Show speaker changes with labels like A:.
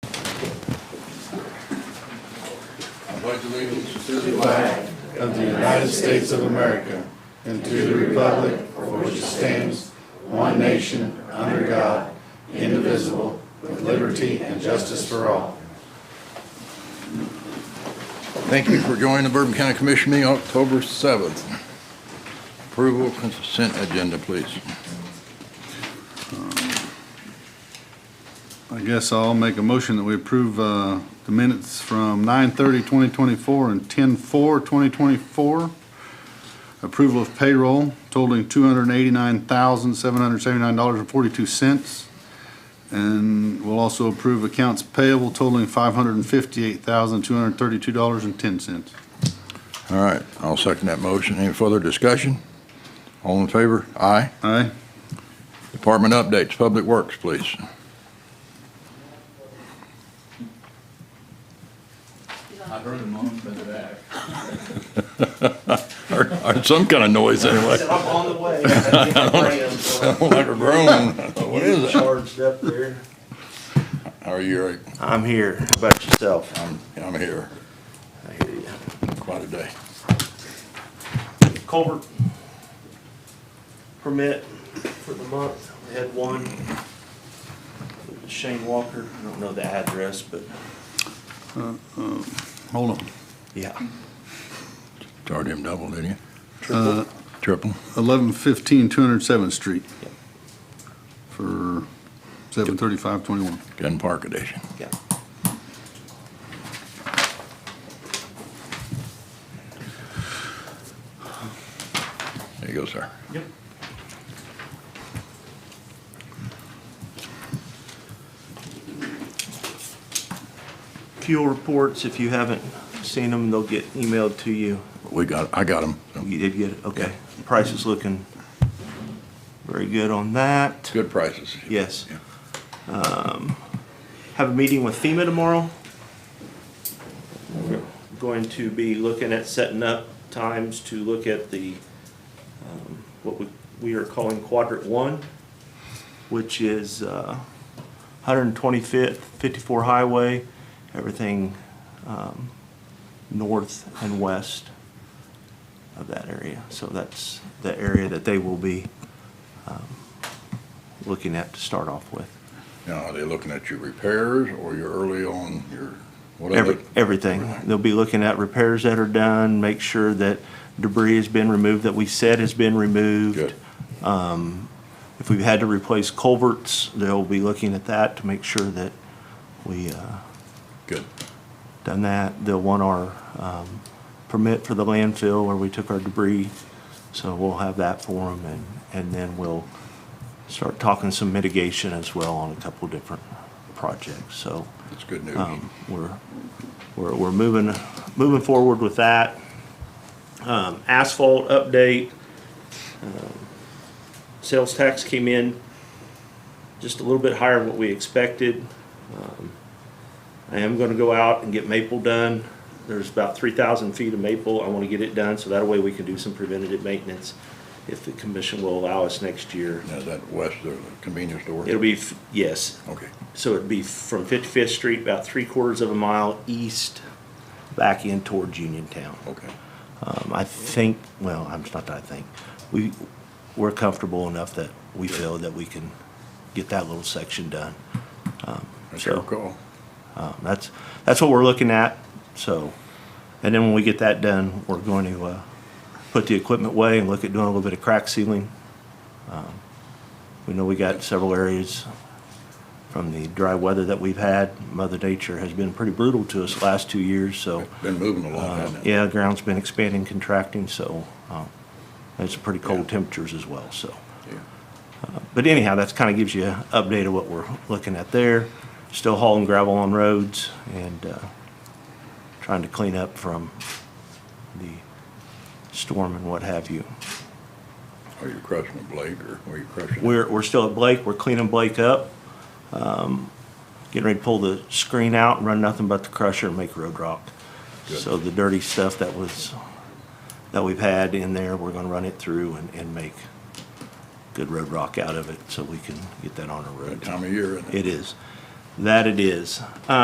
A: pledge allegiance
B: to the flag of the United States of America and to the republic for which it stands, one nation, under God, indivisible, with liberty and justice for all.
A: Thank you for joining the Bourbon County Commission meeting October 7th. Approval of consent agenda, please.
C: I guess I'll make a motion that we approve uh, the minutes from 9/30/2024 and 10/4/2024. Approval of payroll totaling $289,779.42. And we'll also approve accounts payable totaling $558,232.10.
A: All right, I'll second that motion. Any further discussion? All in favor? Aye.
C: Aye?
A: Department updates, Public Works, please.
D: I heard a moan from the back.
A: Heard heard some kind of noise
D: I
A: anyway.
D: said, I'm on the way. I had to get my friends, so
A: Like a groan. What
D: I'm
A: is it?
D: Charged up there.
A: How are you, Eric?
D: I'm here. How about yourself?
A: I'm, I'm here.
D: I hear you.
A: Quite a day.
D: Culvert permit for the month. We had one. Shane Walker, I don't know the address, but
C: Uh, Hold on.
D: yeah.
A: Charged him double, didn't you?
C: Uh,
A: Triple?
C: 1115 207th Street for 73521.
A: Gun Park Edition.
D: Yeah.
A: There you go, sir.
D: Yep. Fuel reports, if you haven't seen them, they'll get emailed to you.
A: We got, I got him.
D: You did get it, okay. Price is looking very good on that.
A: Good prices.
D: Yes.
A: Yeah.
D: Um, Have a meeting with FEMA tomorrow. We're Going to be looking at setting up times to look at the, um, what we, we are calling quadrant one, which is uh, 125th, 54 Highway, everything um, north and west of that area. So that's the area that they will be um, looking at to start off with.
A: Now, are they looking at your repairs or you're early on your, whatever?
D: Every, everything. They'll be looking at repairs that are done, make sure that debris has been removed, that we said has been removed.
A: Good.
D: If we've had to replace culverts, they'll be looking at that to make sure that we, uh,
A: Good.
D: done that. They'll want our, um, permit for the landfill where we took our debris. So we'll have that for them and, and then we'll start talking some mitigation as well on a couple of different projects, so.
A: That's good news.
D: Um, We're, we're, we're moving, moving forward with that. Um, Asphalt update. um, Sales tax came in just a little bit higher than what we expected. Um, I am gonna go out and get maple done. There's about three thousand feet of maple. I wanna get it done, so that way we can do some preventative maintenance if the commission will allow us next year.
A: Now, is that west of the convenience store?
D: It'll be, f- yes,
A: Okay.
D: so it'd be from 55th Street, about three quarters of a mile east, back in towards Uniontown.
A: Okay.
D: Um, I think, well, I'm not that I think, we, we're comfortable enough that we feel that we can get that little section done. Um,
A: That's
D: so,
A: your call.
D: um, That's, that's what we're looking at, so, and then when we get that done, we're going to, uh, put the equipment away and look at doing a little bit of crack sealing. Um, We know we got several areas from the dry weather that we've had. Mother Nature has been pretty brutal to us the last two years, so,
A: Been moving along,
D: uh,
A: hasn't it?
D: yeah, ground's been expanding, contracting, so, um, it's pretty cold temperatures as well, so. But anyhow, that's kind of gives you an update of what we're looking at there. Still hauling gravel on roads and uh, trying to clean up from the storm and what have you.
A: Are you crushing a blade or are you crushing? it?
D: We're, we're still at Blake, we're cleaning Blake up. um, Getting ready to pull the screen out and run nothing but the crusher and make road rock.
A: Good.
D: So the dirty stuff that was, that we've had in there, we're gonna run it through and, and make good road rock out of it so we can get that on our
A: That
D: road.
A: time of year, isn't it?
D: It is. That it is.